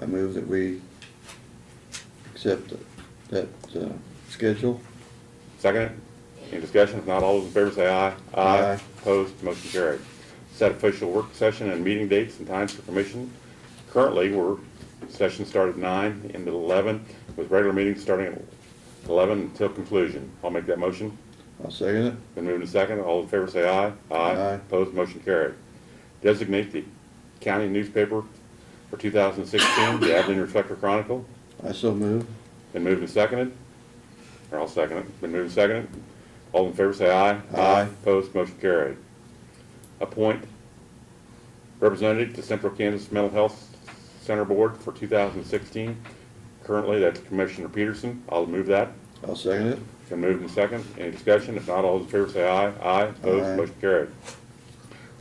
I move that we accept that, uh, schedule. Second it? Any discussion? If not, all those in favor say aye. Aye. Opposed, motion carried. Set official work session and meeting dates and times for commission. Currently, we're, session started at nine, ended at eleven, with regular meetings starting at eleven until conclusion. I'll make that motion. I'll second it. Been moved and second. All in favor say aye. Aye. Opposed, motion carried. Designate the county newspaper for two thousand sixteen, the Abilene Reflector Chronicle. I so move. Been moved and seconded, or I'll second it, been moved and seconded. All in favor say aye. Aye. Opposed, motion carried. Appoint representative to Central Kansas Mental Health Center Board for 2016. Currently, that's Commissioner Peterson. I'll move that. I'll second it. Been moved and seconded. Any discussion? If not, all those in favor say aye. Aye. Opposed, Aye. motion carried.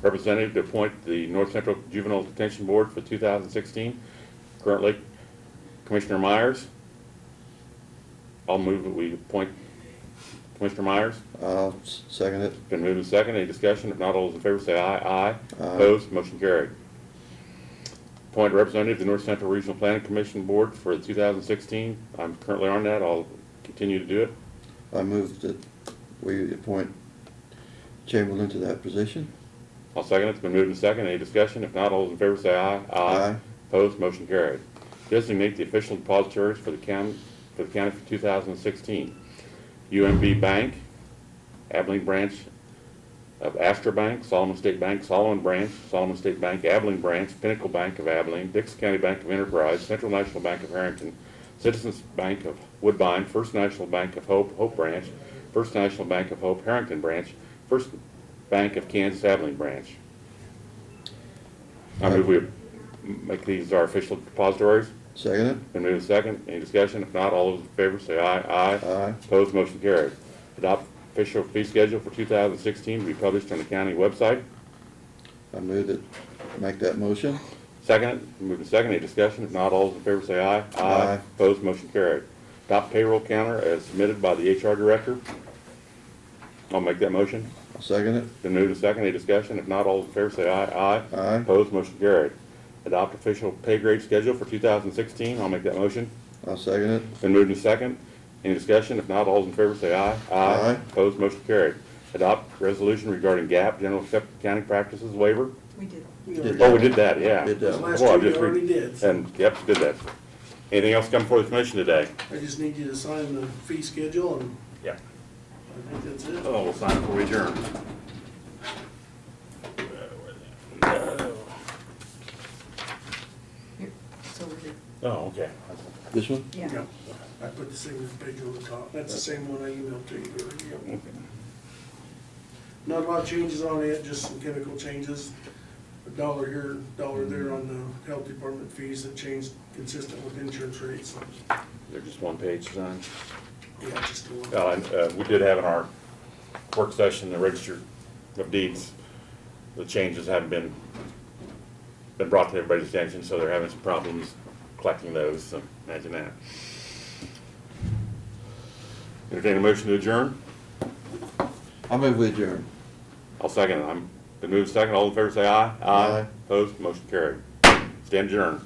Representative to appoint the North Central Juvenile Detention Board for 2016. Currently, Commissioner Myers. I'll move that we appoint Commissioner Myers. I'll s- second it. Been moved and seconded. Any discussion? If not, all those in favor say aye. Aye. Aye. Opposed, motion carried. Appoint representative to the North Central Regional Planning Commission Board for 2016. I'm currently on that. I'll continue to do it. I move that we appoint Chamberlain to that position. I'll second it. It's been moved and seconded. Any discussion? If not, all those in favor say aye. Aye. Opposed, motion carried. Designate the official depositories for the county, for the county for 2016. UMB Bank, Abilene Branch of Astra Bank, Solomon State Bank, Solomon Branch, Solomon State Bank, Abilene Branch, Pinnacle Bank of Abilene, Dix County Bank of Enterprise, Central National Bank of Harrington, Citizens Bank of Woodbine, First National Bank of Hope, Hope Branch, First National Bank of Hope, Harrington Branch, First Bank of Kansas, Abilene Branch. I move we make these our official depositories. Second it. Been moved and second. Any discussion? If not, all those in favor say aye. Aye. Aye. Opposed, motion carried. Adopt official fee schedule for 2016 to be published on the county website. I move that, make that motion. Second, moved and second. Any discussion? If not, all those in favor say aye. Aye. Opposed, motion carried. Adopt payroll counter as submitted by the HR director. I'll make that motion. I'll second it. Been moved and second. Any discussion? If not, all those in favor say aye. Aye. Aye. Opposed, motion carried. Adopt official pay grade schedule for 2016. I'll make that motion. I'll second it. Been moved and second. Any discussion? If not, all those in favor say aye. Aye. Opposed, motion carried. Adopt resolution regarding GAP, general accepted accounting practices waiver. We did. Did Oh, we did that, yeah. Did that. Boy, I Last year we just re- already did. And, yep, did that. Anything else come before the commission today? I just need you to sign the fee schedule and Yeah. I think that's it. Oh, we'll sign it before we adjourn. Here, It's over here. Oh, okay. This one? Yeah. Yeah, I put the signature page on the top. That's the same one I emailed to you earlier. Okay. Not a lot of changes on it, just some chemical changes. A dollar here, dollar there on the health department fees that changed consistent with insurance rates. They're just one page sign. Yeah, just a little. Uh, and, uh, we did have in our work session, the register of deeds, the changes haven't been, been brought to everybody's attention, so they're having some problems collecting those, so imagine that. Entertain a motion to adjourn? I move we adjourn. I'll second it. I'm, been moved second. All in favor say aye. Aye. Opposed, motion carried. Stand adjourned.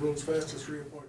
World's fastest reappointment.